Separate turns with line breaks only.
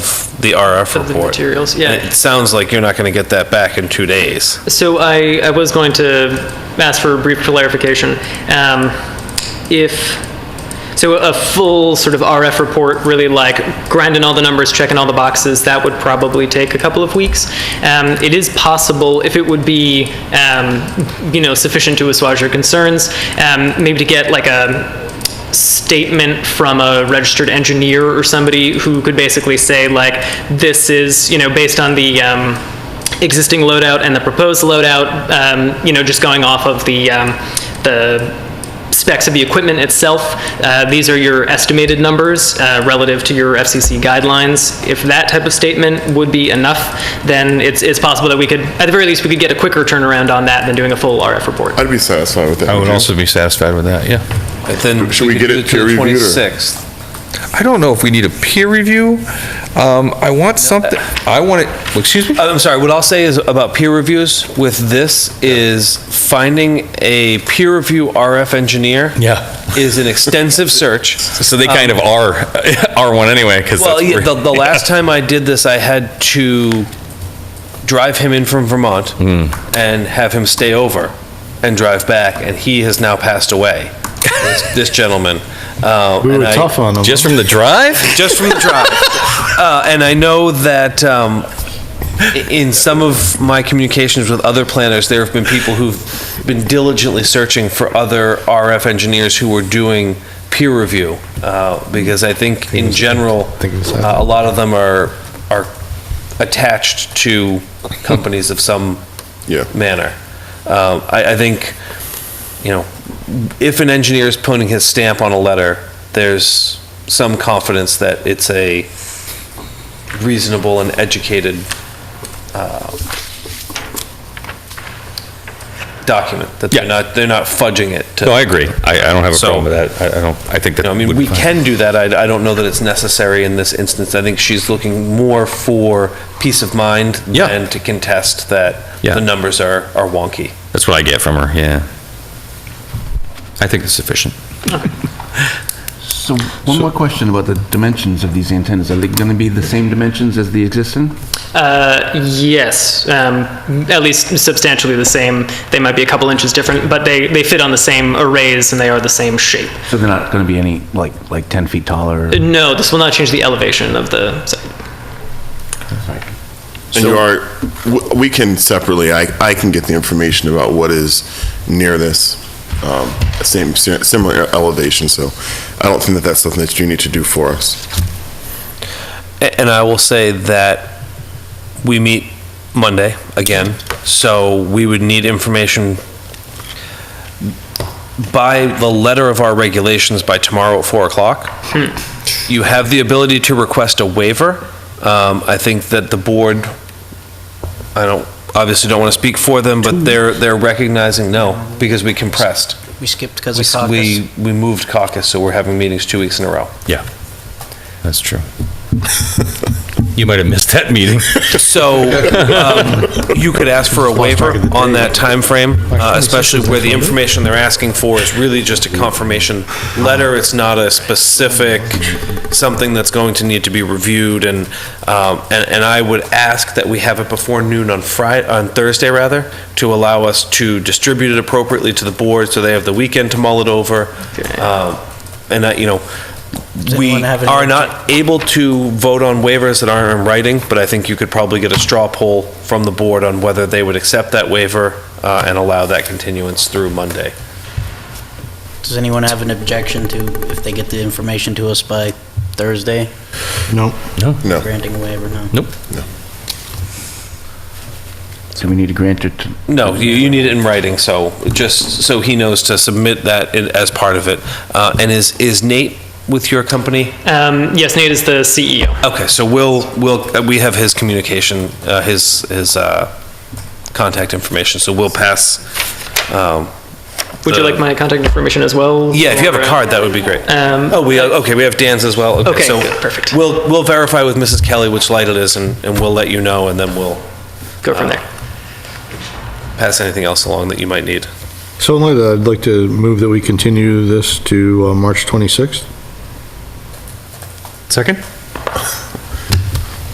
the RF
Of the
report.
materials, yeah.
And it sounds like you're not going to get that back in two days.
So I, I was going to ask for a brief clarification. Um, If, so a full sort of RF report, really like grinding all the numbers, checking all the boxes, that would probably take a couple of weeks. Um, It is possible, if it would be, um, you know, sufficient to assuage your concerns, um, maybe to get like a, statement from a registered engineer or somebody who could basically say like, this is, you know, based on the um, existing loadout and the proposed loadout, um, you know, just going off of the, um, the specs of the equipment itself, uh, these are your estimated numbers uh, relative to your FCC guidelines. If that type of statement would be enough, then it's, it's possible that we could, at the very least, we could get a quicker turnaround on that than doing a full RF report.
I'd be satisfied with that.
I would also be satisfied with that, yeah.
And then
Should we get
could do
it
to the
peer reviewed or-
26th.
I don't know if we need a peer review. Um, I want something, I want it, excuse me?
Uh, I'm sorry, what I'll say is about peer reviews with this is finding a peer review RF engineer.
Yeah.
Is an extensive search.
So they kind of are, are one anyway, because
Well, yeah, the, the last time I did this, I had to drive him in from Vermont
Hmm.
and have him stay over and drive back, and he has now passed away. this, this gentleman. Uh,
We
and
were
I-
tough on them.
Just from the drive?
just from the drive. uh, and I know that um, i- in some of my communications with other planners, there have been people who've been diligently searching for other RF engineers who were doing peer review uh, because I think in general,
think it was-
uh, a lot of them are are attached to companies of some
Yeah.
manner. Uh, I, I think you know, if an engineer is putting his stamp on a letter, there's some confidence that it's a reasonable and educated uh, document, that they're
Yeah.
not, they're not fudging it to...
No, I agree. I, I don't have a
So-
problem with that. I I don't, I think
You
that.
know, I mean,
would
we
be fine.
can do that, I, I don't know that it's necessary in this instance. I think she's looking more for peace of mind
Yeah.
than to contest that
Yeah.
the numbers are, are wonky.
That's what I get from her, yeah. I think it's sufficient.
So one more question about the dimensions of these antennas. Are they going to be the same dimensions as the existing?
Uh, Yes, um, at least substantially the same. They might be a couple inches different, but they, they fit on the same arrays and they are the same shape.
So they're not going to be any, like, like 10 feet taller? or-
No, this will not change the elevation of the site.
And you are, w- we can separately, I, I can get the information about what is near this, um, same, si- similar elevation, so I don't think that that's something that you need to do for us.
A- And I will say that we meet Monday again, so we would need information by the letter of our regulations by tomorrow at 4 o'clock. You have the ability to request a waiver. Um, I think that the board, I don't, obviously don't want to speak for them, but they're, they're recognizing, no, because we compressed.
We skipped because
We
of
s-
caucus.
We, we moved caucus, so we're having meetings two weeks in a row.
Yeah, that's true. You might have missed that meeting.
So um, you could ask for a waiver on that timeframe, uh, especially where the information they're asking for is really just a confirmation letter. It's not a specific, something that's going to need to be reviewed. And, um, and and I would ask that we have it before noon on Friday, on Thursday, rather, to allow us to distribute it appropriately to the board so they have the weekend to mull it over. Um, And, I- you know, we
anyone have any
are not able to vote on waivers that aren't in writing, but I think you could probably get a straw poll from the board on whether they would accept that waiver uh, and allow that continuance through Monday.
Does anyone have an objection to if they get the information to us by Thursday,
Nope.
Oh.
No.
granting a waiver? No.
Nope.
Do we need to grant it? to-
No, you, you need it in writing, so, just so he knows to submit that in- as part of it. Uh, And is, is Nate with your company?
Um, Yes, Nate is the E CEO.
Okay, so we'll, we'll, uh, we have his communication, uh, his, his uh, contact information, so we'll pass. um,
Would you
the-
like my contact information as well?
Yeah, if you have a card, that would be great.
Um,
Oh, we, okay, we have Dan's as well.
Okay,
so
good, perfect.
We'll, we'll verify with Mrs. Kelly which light it is, and, and we'll let you know, and then we'll
Go
uh,
from there.
pass anything else along that you might need.
So only that, I'd like to move that we continue this to uh, March 26th.
Second?